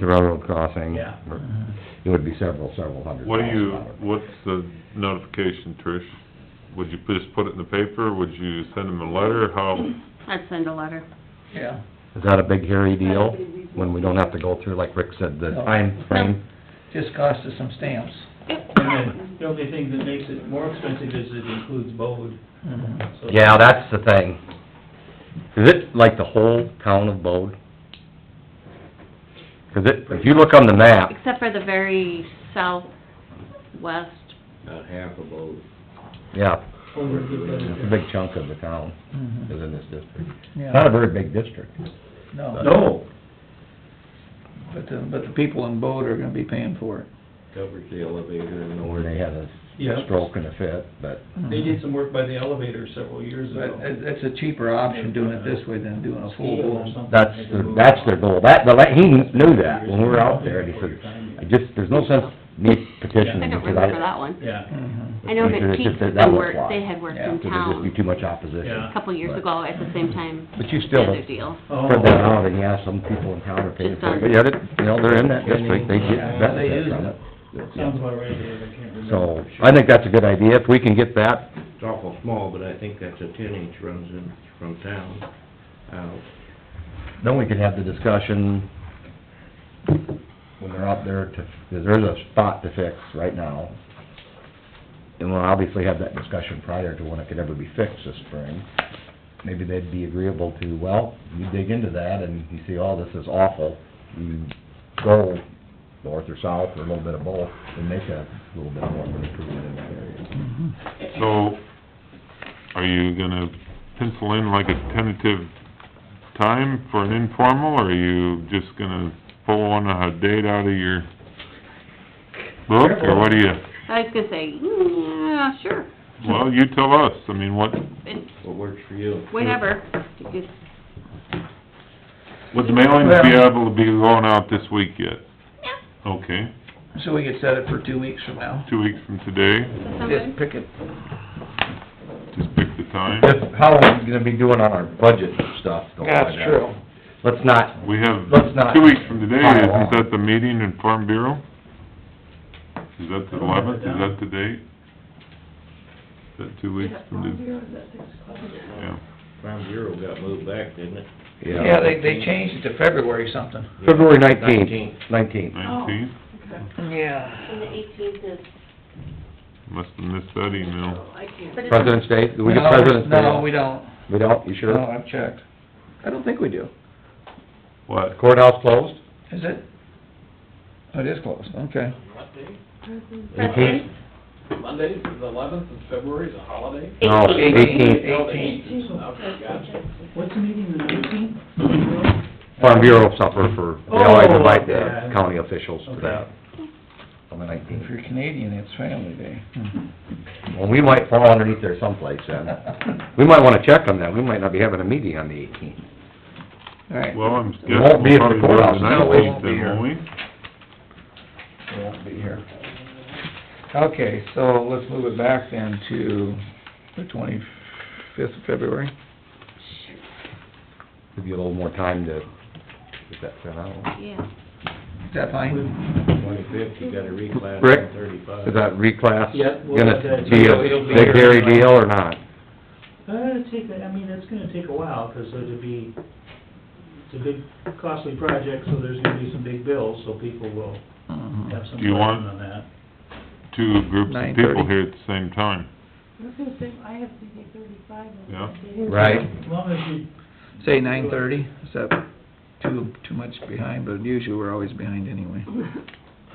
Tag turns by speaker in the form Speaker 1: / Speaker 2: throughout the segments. Speaker 1: the railroad crossing.
Speaker 2: Yeah.
Speaker 1: It would be several, several hundred
Speaker 3: What do
Speaker 1: thousand
Speaker 3: you,
Speaker 1: dollars.
Speaker 3: what's the notification, Trish? Would you just put it in the paper, would you send them a letter, how,
Speaker 4: I'd send a letter.
Speaker 2: Yeah,
Speaker 1: Is that a big hairy deal, when we don't have to go through, like Rick said, the
Speaker 2: No.
Speaker 1: time frame?
Speaker 2: just cost us some stamps.
Speaker 5: And then, the only thing that makes it more expensive is it includes Bode,
Speaker 2: Mhm.
Speaker 5: so.
Speaker 1: Mm-hmm. Yeah, that's the thing. Is it like the whole town of Bode? 'Cause it, if you look on the map,
Speaker 4: Except for the very southwest,
Speaker 6: About half of those.
Speaker 1: yeah,
Speaker 5: Over the-
Speaker 1: it's a big chunk of the town
Speaker 2: Mhm.
Speaker 1: is in this district. It's Mm-hmm. Not a
Speaker 2: Yeah,
Speaker 1: very big district.
Speaker 2: no.
Speaker 5: No,
Speaker 2: But the, but the people in Bode are gonna be paying for it.
Speaker 6: Covers the elevator and the
Speaker 1: Where they had a
Speaker 5: Yeah.
Speaker 1: stroke and a fit, but
Speaker 5: they did some work by the elevator several years
Speaker 2: But
Speaker 5: ago.
Speaker 2: it, it's a cheaper option doing it this way than doing a full
Speaker 5: Steel or
Speaker 2: blown.
Speaker 5: something.
Speaker 1: that's, their- that's their goal. That, the, la- he knew that when we were out there, and he said, I just, there's no sense me
Speaker 4: I
Speaker 1: petitioning
Speaker 4: don't
Speaker 1: because
Speaker 4: remember
Speaker 1: I,
Speaker 4: that one.
Speaker 5: Yeah,
Speaker 2: Mhm.
Speaker 4: I know
Speaker 1: Because
Speaker 4: that
Speaker 1: it's
Speaker 4: Pete
Speaker 1: just that
Speaker 4: did
Speaker 1: that
Speaker 4: some
Speaker 1: was
Speaker 4: work,
Speaker 1: why.
Speaker 4: they had worked
Speaker 2: Yeah,
Speaker 4: in
Speaker 2: 'cause
Speaker 1: because there'd just be
Speaker 4: town
Speaker 1: too much opposition.
Speaker 5: yeah.
Speaker 4: a couple years ago at the same time,
Speaker 1: But you
Speaker 4: the
Speaker 1: still,
Speaker 4: other
Speaker 1: heard
Speaker 4: deal.
Speaker 1: that
Speaker 5: Oh,
Speaker 1: out, and yeah, some people in town are paying for it, but yeah, they- you know, they're in that district, they
Speaker 2: Yeah,
Speaker 1: get
Speaker 2: they
Speaker 1: benefit
Speaker 2: use
Speaker 1: from
Speaker 2: it.
Speaker 1: it.
Speaker 5: sounds about right, Dave, I can't remember.
Speaker 1: So, I think that's a good idea, if we can get that,
Speaker 6: It's awful small, but I think that's a ten inch runs in from town Uh, out.
Speaker 1: then we could have the discussion when they're out there to, 'cause there's a spot to fix right now. And we'll obviously have that discussion prior to when it could ever be fixed this spring. Maybe they'd be agreeable to, well, you dig into that and you see, oh, this is awful, you go north or south or a little bit of both and make a little bit more of an improvement in that area.
Speaker 3: so, are you gonna pencil in like a tentative time for an informal, or are you just gonna pull one, a date out of your book, or what do you,
Speaker 4: I was gonna say, "Mm, yeah, sure,
Speaker 3: well, you tell us, I mean, what,
Speaker 4: It-
Speaker 6: What works for you?
Speaker 4: whenever, You just-
Speaker 3: would the mailing be able to be going out this week yet?
Speaker 4: yeah,
Speaker 3: Okay,
Speaker 2: So we could set it for two weeks from now.
Speaker 3: two weeks from today,
Speaker 4: that sound
Speaker 2: Just
Speaker 4: good?
Speaker 2: pick it,
Speaker 3: just pick the time.
Speaker 1: Just how are we gonna be doing on our budget stuff? though, by
Speaker 2: that's
Speaker 1: then?
Speaker 2: true.
Speaker 1: Let's not,
Speaker 3: We have,
Speaker 1: Let's not
Speaker 3: two weeks from today,
Speaker 1: pile on.
Speaker 3: isn't that the meeting in Farm Bureau? Is that the eleventh, is that the date? Is that two weeks from today? Yeah,
Speaker 6: Farm Bureau got moved back, didn't it?
Speaker 2: Yeah, they, they changed it to February something.
Speaker 1: February nineteenth, nineteenth.
Speaker 3: nineteenth,
Speaker 2: Yeah.
Speaker 7: And the eighteenth is,
Speaker 3: must have missed that email.
Speaker 7: I can't.
Speaker 4: But it's-
Speaker 1: President's Day, do we get President's Day?
Speaker 2: No, we don't.
Speaker 1: We don't, you
Speaker 2: No,
Speaker 1: sure?
Speaker 2: I've checked. I don't think we do.
Speaker 3: What?
Speaker 1: Courthouse closed?
Speaker 2: Is it? Oh, It is closed, okay.
Speaker 4: President's-
Speaker 8: Monday, the eleventh of February is a holiday?
Speaker 1: No, eighteenth,
Speaker 2: Eighteenth.
Speaker 8: Okay, gotcha.
Speaker 5: What's the meeting, the nineteenth?
Speaker 1: Farm Bureau supper for, they always
Speaker 5: Oh,
Speaker 1: invite the
Speaker 5: yeah.
Speaker 1: county officials to that,
Speaker 5: Okay.
Speaker 1: on the nineteenth.
Speaker 2: If you're Canadian, it's Family Day.
Speaker 1: Well, we might fall underneath there someplace then.
Speaker 2: All
Speaker 1: We might wanna check on that, we might not be having a meeting on the eighteenth.
Speaker 2: right.
Speaker 3: Well, I'm
Speaker 1: We
Speaker 3: guessing
Speaker 1: won't be
Speaker 3: we'll
Speaker 1: at the
Speaker 3: probably do it the
Speaker 1: courthouse, no, we
Speaker 3: nineteenth
Speaker 2: won't be
Speaker 3: then,
Speaker 2: here.
Speaker 3: won't we?
Speaker 2: I won't be here. Okay, so let's move it back then to the twenty-fifth of February.
Speaker 1: Give you a little more time to get that sent out.
Speaker 4: Yeah,
Speaker 2: Is that fine?
Speaker 6: Twenty-fifth, you got a reclass
Speaker 1: Rick,
Speaker 6: on thirty-five.
Speaker 1: Is that reclass
Speaker 5: Yep, we'll let
Speaker 1: gonna
Speaker 5: that-
Speaker 1: be a
Speaker 5: so he'll be
Speaker 1: big
Speaker 5: here
Speaker 1: hairy
Speaker 5: anyway.
Speaker 1: deal or not?
Speaker 5: Uh, take, that- I mean, it's gonna take a while, 'cause it'll be, it's a big costly project, so there's gonna be some big bills, so people will
Speaker 2: Mm-hmm.
Speaker 5: have some
Speaker 3: Do you want-
Speaker 5: question on that.
Speaker 3: Two groups of
Speaker 2: 9:30.
Speaker 3: people here at the same time,
Speaker 7: I was gonna say, I have to be thirty-five on
Speaker 3: Yeah.
Speaker 7: that day.
Speaker 1: Right.
Speaker 5: As long as you,
Speaker 2: Say nine-thirty, is that too, too much behind, but usually we're always behind anyway.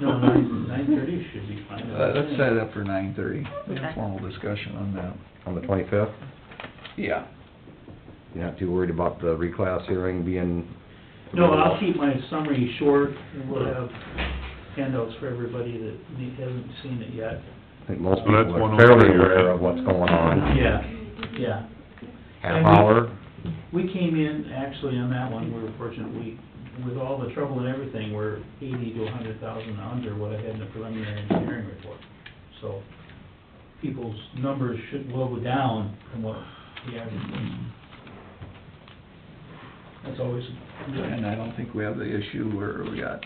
Speaker 5: no, nine, nine-thirty should be fine.
Speaker 2: Uh, Let's set it up for nine-thirty,
Speaker 4: Okay.
Speaker 2: formal discussion on that.
Speaker 1: On the twenty-fifth?
Speaker 2: Yeah.
Speaker 1: You're not too worried about the reclass hearing being...
Speaker 5: No, I'll keep my summary short, and we'll have handouts for everybody that ne- hasn't seen it yet.
Speaker 1: I think most
Speaker 3: So
Speaker 1: people
Speaker 3: that's
Speaker 1: are
Speaker 3: 103,
Speaker 1: fairly
Speaker 3: right?
Speaker 1: aware of what's going on.
Speaker 5: Yeah, yeah.
Speaker 1: Half
Speaker 5: And we-
Speaker 1: hour,
Speaker 5: We came in, actually, on that one, we were fortunate, we, with all the trouble and everything, we're eighty to a hundred thousand under what I had in the preliminary engineering report. So, people's numbers should, will go down from what the average was. That's always,
Speaker 2: And I don't think we have the issue where we got